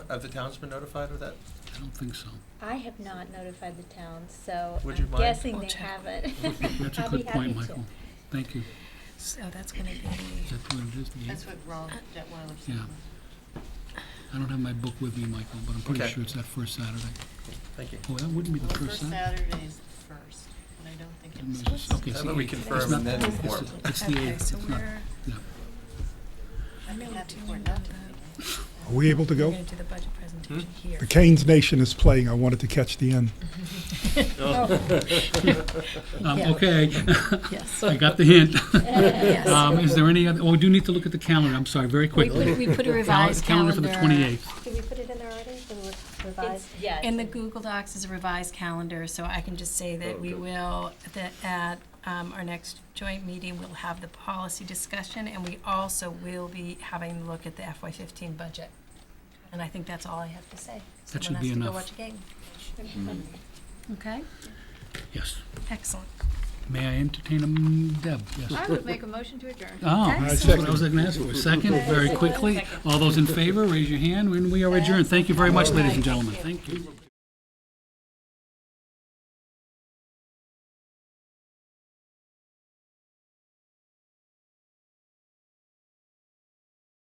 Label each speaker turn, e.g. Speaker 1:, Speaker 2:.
Speaker 1: have the towns been notified of that?
Speaker 2: I don't think so.
Speaker 3: I have not notified the town, so
Speaker 1: Would you
Speaker 3: I'm
Speaker 1: mind?
Speaker 3: guessing
Speaker 4: I'll
Speaker 3: they
Speaker 4: check.
Speaker 3: haven't.
Speaker 2: That's a
Speaker 3: I'll be
Speaker 2: good point,
Speaker 3: happy to.
Speaker 2: Michael. Thank you.
Speaker 4: So that's gonna be,
Speaker 2: That's what it is. the-
Speaker 5: That's what Roland Detweiler said.
Speaker 2: Yeah. I don't have my book with me, Michael, but I'm pretty
Speaker 1: Okay.
Speaker 2: sure it's that first Saturday.
Speaker 1: Thank you.
Speaker 2: Oh, that wouldn't be
Speaker 5: Well,
Speaker 2: the
Speaker 5: the
Speaker 2: first
Speaker 5: first
Speaker 2: Saturday.
Speaker 5: Saturday is the first, but I don't think
Speaker 2: It
Speaker 5: it's.
Speaker 2: measures- Okay,
Speaker 1: How
Speaker 2: see,
Speaker 1: about we
Speaker 2: eight. It's
Speaker 1: confirm and
Speaker 2: not-
Speaker 1: then
Speaker 2: it's
Speaker 1: inform?
Speaker 2: the- It's the
Speaker 4: okay,
Speaker 2: eighth,
Speaker 4: so
Speaker 2: it's not,
Speaker 4: we're,
Speaker 2: yeah.
Speaker 5: I'd be
Speaker 4: No,
Speaker 5: happy
Speaker 4: do
Speaker 5: for
Speaker 4: you
Speaker 5: it not
Speaker 4: know
Speaker 5: to
Speaker 4: that?
Speaker 5: be.
Speaker 6: Are we able to
Speaker 4: we're
Speaker 6: go?
Speaker 4: gonna do the budget presentation
Speaker 2: Hmm?
Speaker 4: here.
Speaker 6: The Canes Nation is playing. I wanted to catch the end.
Speaker 2: Um,
Speaker 4: Yeah.
Speaker 2: okay,
Speaker 4: Yes.
Speaker 2: I got the hint.
Speaker 4: Yes.
Speaker 2: Um, is there any other, oh, we do need to look at the calendar, I'm sorry, very
Speaker 4: We
Speaker 2: quickly.
Speaker 4: put, we put a
Speaker 2: Cal-
Speaker 4: revised
Speaker 2: Calendar
Speaker 4: calendar.
Speaker 2: for the twenty-eighth.
Speaker 7: Did we put it in there already, the re- revised?
Speaker 3: It's, yeah.
Speaker 4: In the Google Docs is a revised calendar, so I can just say that we will, that at um, our next joint meeting, we'll have the policy discussion, and we also will be having a look at the FY fifteen budget. And I think that's all I have to say.
Speaker 2: That should be enough.
Speaker 4: Someone has to go watch a game.
Speaker 2: Hmm.
Speaker 4: Okay,
Speaker 2: Yes.
Speaker 4: excellent.
Speaker 2: May I entertain a, m- Deb, yes?
Speaker 8: I would make a motion to adjourn.
Speaker 2: Oh,
Speaker 4: I
Speaker 2: that's what
Speaker 6: second.
Speaker 2: I was gonna ask for. Second, very quickly. All those in favor, raise your hand, and we are adjourned. Thank you very much, ladies and gentlemen. Thank you.